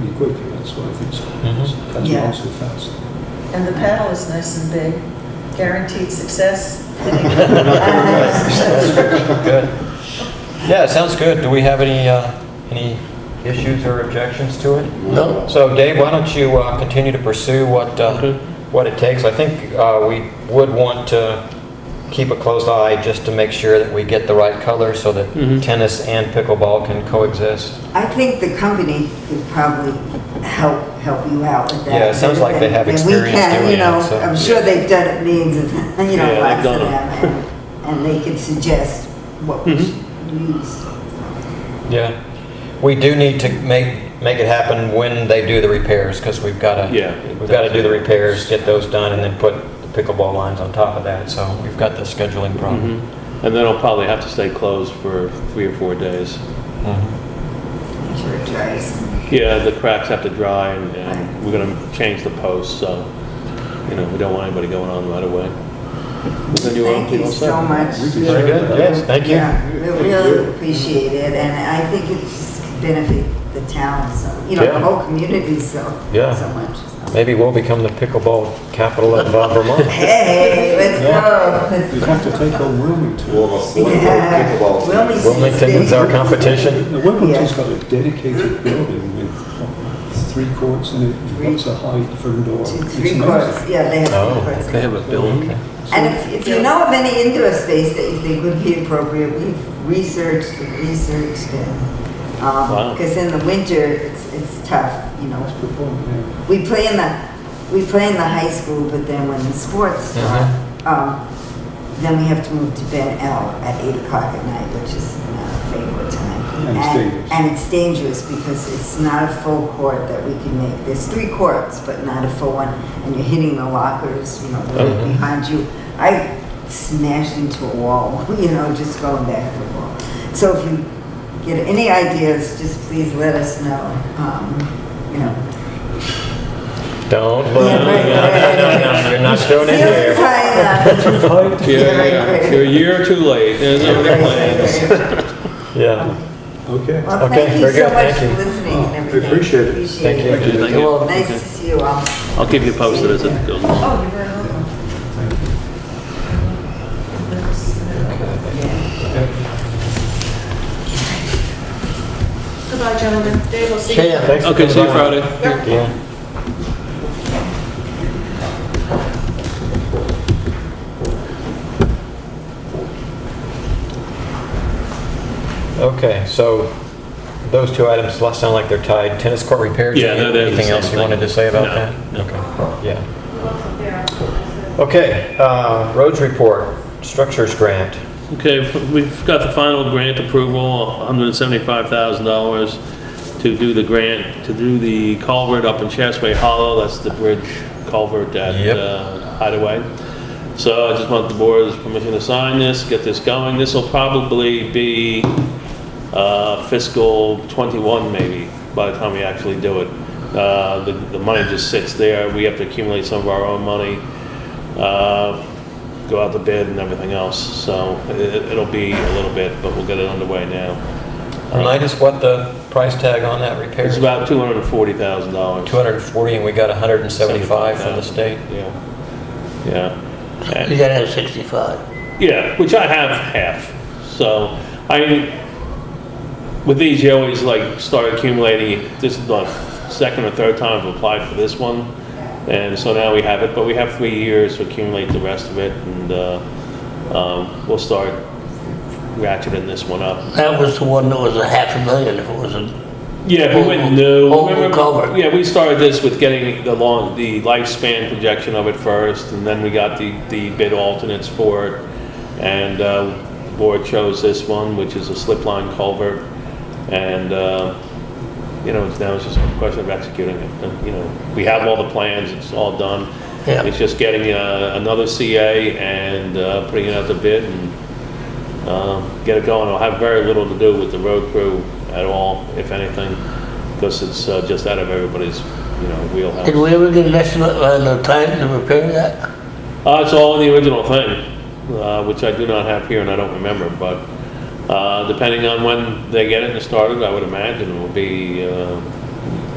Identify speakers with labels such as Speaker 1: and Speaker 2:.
Speaker 1: pretty quickly, that's why I think so.
Speaker 2: Mhm.
Speaker 1: Comes
Speaker 3: Yeah.
Speaker 1: along so fast.
Speaker 3: And the panel is nice and big. Guaranteed success.
Speaker 2: Good. Yeah, it sounds good. Do we have any, uh, any issues or objections to it?
Speaker 4: No.
Speaker 2: So Dave, why don't you uh, continue to pursue what, uh,
Speaker 4: Okay.
Speaker 2: what it takes? I think uh, we would want to keep a close eye just to make sure that we get the right color so that
Speaker 4: Mhm.
Speaker 2: tennis and pickleball can coexist.
Speaker 5: I think the company could probably help, help you out with that.
Speaker 2: Yeah, it sounds like they have
Speaker 5: And we
Speaker 2: experience
Speaker 5: can,
Speaker 2: doing
Speaker 5: you know,
Speaker 2: it, so-
Speaker 5: I'm sure they've done it millions of, times, you know,
Speaker 4: Yeah, they've
Speaker 5: lots of
Speaker 4: done 'em.
Speaker 5: them. and- And they could suggest what we
Speaker 4: Mhm.
Speaker 5: should use.
Speaker 2: Yeah. We do need to make, make it happen when they do the repairs because we've got to,
Speaker 4: Yeah.
Speaker 2: we've got to do the repairs, get those done, and then put the pickleball lines on top of that. So we've got the scheduling problem.
Speaker 4: Mhm. And then I'll probably have to stay closed for three or four days.
Speaker 2: Mhm.
Speaker 5: I'm sure it dries.
Speaker 4: Yeah, the cracks have to dry and, and we're gonna change the posts, so, you know, we don't want anybody going on right away. Then you are-
Speaker 5: Thank you
Speaker 4: all set.
Speaker 5: so much.
Speaker 2: Very good, yes, thank you.
Speaker 5: Yeah, we really appreciate it, and I think it just could benefit the town, so, you know,
Speaker 2: Yeah.
Speaker 5: the whole community so,
Speaker 2: Yeah.
Speaker 5: so much. so.
Speaker 2: Maybe we'll become the pickleball capital of uh, Vermont.
Speaker 5: Hey, let's go.
Speaker 1: You have to take on Wilmington.
Speaker 5: Yeah. Wilmington's
Speaker 2: Wilmington's our
Speaker 5: big.
Speaker 2: competition.
Speaker 1: Now, Wilmington's got a dedicated building with three courts and it, it's a high front door.
Speaker 5: Two,
Speaker 1: It's
Speaker 5: Three
Speaker 1: amazing.
Speaker 5: courts, yeah, they
Speaker 2: Oh,
Speaker 5: have three
Speaker 4: They
Speaker 5: courts.
Speaker 4: have a building.
Speaker 5: And if, if you know of any indoor space that you think would be appropriate, we've researched and researched and, um,
Speaker 4: Wow.
Speaker 5: because in the winter, it's, it's tough, you know.
Speaker 1: That's the point, yeah.
Speaker 5: We play in the, we play in the high school, but then when the sports start, um, then we have to move to Ben L at eight o'clock at night, which is not a favorite time.
Speaker 1: And it's dangerous.
Speaker 5: And it's dangerous because it's not a full court that we can make. There's three courts, but not a full one, and you're hitting the lockers, you know, they're right
Speaker 2: Mhm.
Speaker 5: behind you. I smashed into a wall, you know, just going back to the wall. So if you get any ideas, just please let us know, um, you know.
Speaker 2: Don't look. No, no, no, no, You're not showing in
Speaker 5: Feel the
Speaker 2: here.
Speaker 5: time, uh,
Speaker 4: Yeah, yeah, you're a year or two late, there's no other plans.
Speaker 2: Yeah.
Speaker 1: Okay.
Speaker 5: Well,
Speaker 2: Okay, very
Speaker 5: thank you so
Speaker 2: good,
Speaker 5: much
Speaker 2: thank
Speaker 5: for
Speaker 2: you.
Speaker 5: listening and everything.
Speaker 1: appreciate it.
Speaker 5: Appreciate
Speaker 2: Thank
Speaker 5: it.
Speaker 2: you.
Speaker 4: Thank you.
Speaker 5: Well, nice to see you all.
Speaker 4: I'll keep you posted as it goes along.
Speaker 3: Oh, you're very welcome. Goodbye, gentlemen. Dave will see you.
Speaker 2: Okay, yeah, thanks for
Speaker 4: Okay, see you
Speaker 2: coming by.
Speaker 4: Friday.
Speaker 2: Yeah. Okay, so those two items less sound like they're tied. Tennis court repairs.
Speaker 4: Yeah, no, they're the
Speaker 2: Anything
Speaker 4: same
Speaker 2: else you
Speaker 4: thing.
Speaker 2: wanted to say about
Speaker 4: No,
Speaker 2: that?
Speaker 4: no.
Speaker 2: Okay, yeah. Okay, uh, roads report, structures grant.
Speaker 4: Okay, f- we've got the final grant approval, $175,000 to do the grant, to do the culvert up in Chasway Hollow, that's the bridge culvert at
Speaker 2: Yep.
Speaker 4: uh, Hideaway. So I just want the board's permission to sign this, get this going. This will probably be uh, fiscal '21 maybe, by the time we actually do it. Uh, The the money just sits there, we have to accumulate some of our own money, uh, go out to bid and everything else, so it- it'll be a little bit, but we'll get it underway now.
Speaker 2: Remind us what the price tag on that repair
Speaker 4: It's
Speaker 2: is.
Speaker 4: about $240,000.
Speaker 2: 240 and we got 175 from the state.
Speaker 4: Yeah, yeah. And-
Speaker 6: You gotta have 65.
Speaker 4: Yeah, which I have half. So I, with these, you always like start accumulating. This is the second or third time I've applied for this one, and so now we have it. But we have three years to accumulate the rest of it, and uh, um, we'll start ratcheting this one up.
Speaker 6: That was the one that was a half a million if it was a,
Speaker 4: Yeah, if we went new.
Speaker 6: Oval- oval culvert.
Speaker 4: Yeah, we started this with getting the long, the lifespan projection of it first, and then we got the, the bid alternates for it. And, uh, board chose this one, which is a slip line culvert. And, uh, you know, it's now it's just a question of executing it. And, You know, we have all the plans, it's all done.
Speaker 6: Yeah.
Speaker 4: It's just getting, uh, another CA and, uh, putting it out to bid and um, get it going. It'll have very little to do with the road crew at all, if anything, because it's uh, just out of everybody's, you know, wheelhouse.
Speaker 6: did we ever get an estimate on the time to repair that?
Speaker 4: Uh, It's all in the original thing, uh, which I do not have here and I don't remember, but uh, depending on when they get it and started, I would imagine it will be uh,